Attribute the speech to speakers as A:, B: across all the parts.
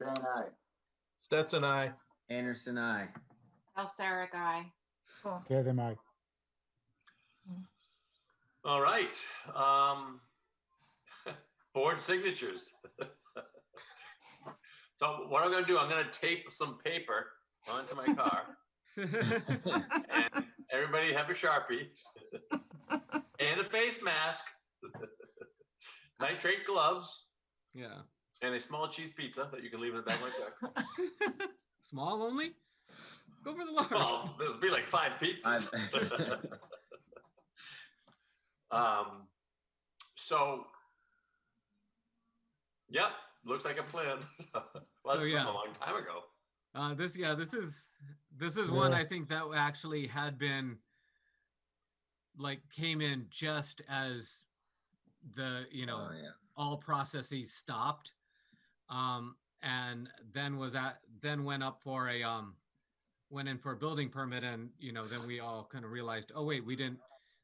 A: Van aye.
B: Stetson, I.
C: Anderson, I.
D: Balsaric, aye.
E: Okay, then I,
F: All right. Um, board signatures. So what I'm gonna do, I'm gonna tape some paper onto my car and everybody have a Sharpie and a face mask, nitrate gloves
B: Yeah.
F: and a small cheese pizza that you can leave in the back of my truck.
B: Small only? Go for the large.
F: Well, there'll be like five pizzas.
C: I've-
F: Um, so, yep, looks like a plan. well,
B: So,
F: that's
B: yeah.
F: from a long time ago.
B: Uh, this, yeah, this is, this is one
E: Yeah.
B: I think that actually had been like came in just as the, you know,
C: Oh, yeah.
B: all processes stopped. Um, and then was at, then went up for a, um, went in for a building permit and, you know, then we all kind of realized, oh wait, we didn't,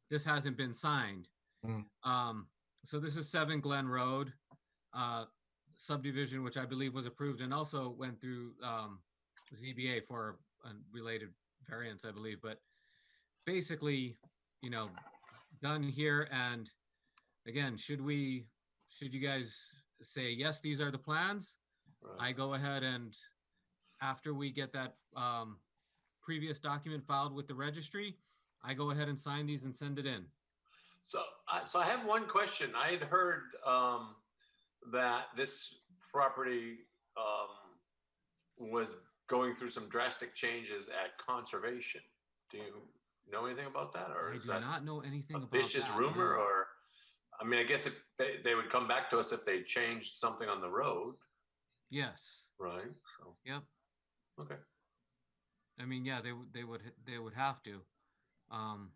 B: this hasn't been signed.
E: Mm.
B: Um, so this is seven Glen Road, uh, subdivision, which I believe was approved and also went through, um, ZBA for a related variance, I believe, but basically, you know, done here and again, should we, should you guys say, yes, these are the plans? I go ahead and after we get that um, previous document filed with the registry, I go ahead and sign these and send it in.
F: So, I, so I have one question. I had heard um, that this property um, was going through some drastic changes at conservation. Do you know anything about that, or
B: I
F: is
B: do
F: that
B: not know anything
F: a
B: about
F: vicious
B: that,
F: rumor?
B: no.
F: Or, I mean, I guess if they, they would come back to us if they changed something on the road,
B: Yes,
F: right? So,
B: Yep.
F: Okay.
B: I mean, yeah, they would, they would, they would have to. Um,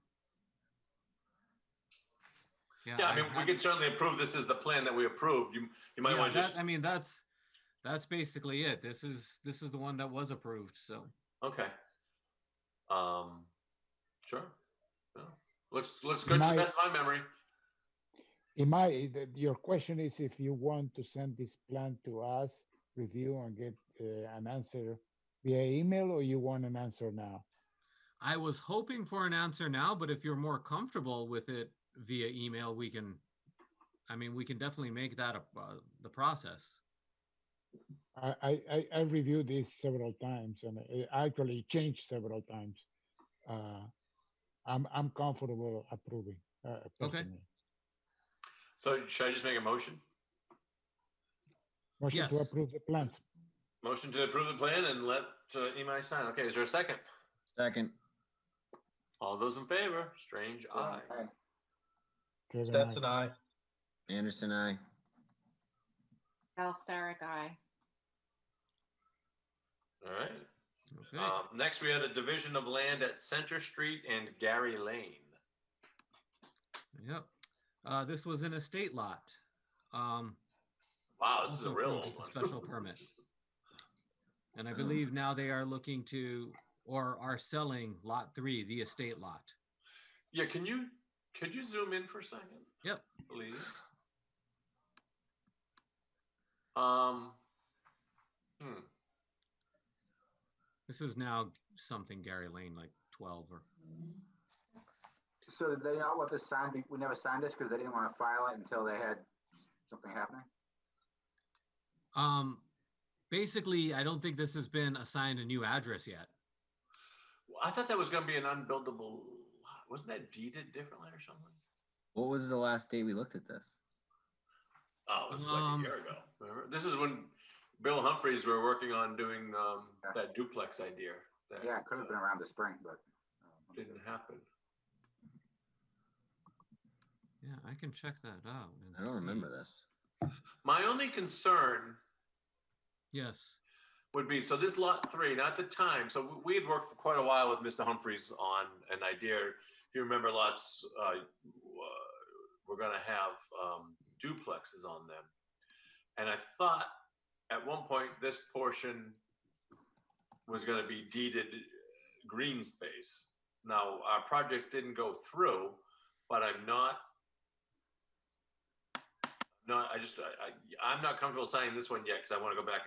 F: Yeah, I mean, we
B: haven't-
F: can certainly approve this as the plan that we approved. You, you might
B: Yeah,
F: want to
B: that-
F: just,
B: I mean, that's, that's basically it. This is, this is the one that was approved, so.
F: okay. Um, sure. Yeah. Looks, looks good to the
E: My-
F: best of my memory.
E: in my, the- your question is if you want to send this plan to us, review and get uh, an answer via email, or you want an answer now?
B: I was hoping for an answer now, but if you're more comfortable with it via email, we can, I mean, we can definitely make that a, uh, the process.
E: I, I, I- I reviewed this several times and it actually changed several times. Uh, I'm, I'm comfortable approving. uh, personally.
F: So should I just make a motion?
E: Motion to
B: Yes.
E: approve the plans.
F: Motion to approve the plan and let uh, Imai sign. Okay, is there a second?
C: Second,
F: All those in favor? Strange eye.
A: Aye.
E: Kevin, aye.
B: Stetson, I.
C: Anderson, I.
D: Balsaric, aye.
F: All right. Um, next, we had a division of land at Center Street and Gary Lane.
B: Yep. Uh, this was an estate lot. Um,
F: Wow, this is a
B: also
F: real old
B: approved with
F: one. Mm.
B: a Special permit. And I believe now they are looking to, or are selling lot three, the estate lot.
F: Yeah, can you, could you zoom in for a second?
B: Yep.
F: Please. Um. hmm,
B: This is now something Gary Lane, like twelve or,
A: So did they not let this sign, be- we never signed this because they didn't want to file it until they had something happening?
B: um, basically, I don't think this has been assigned a new address yet.
F: well, I thought that was gonna be an unbuildable lot. Wasn't that deeded differently or something?
C: What was the last date we looked at this?
F: Oh, this is like a
B: Um,
F: year ago. Remember? This is when Bill Humphreys were working on doing um
A: Yeah.
F: that duplex idea. that,
A: Yeah, it could have been
F: uh,
A: around the spring, but. um,
F: Didn't happen.
B: Yeah, I can check that out. and
C: I don't
B: see.
C: remember this.
F: My only concern
B: Yes.
F: would be, so this lot three, not the time, so we- we had worked for quite a while with Mr. Humphreys on an idea. If you remember lots, uh, w- uh, we're gonna have um, duplexes on them. And I thought at one point this portion was gonna be deeded green space. Now, our project didn't go through, but I'm not no, I just, I, I, I'm not comfortable signing this one yet, because I want to go back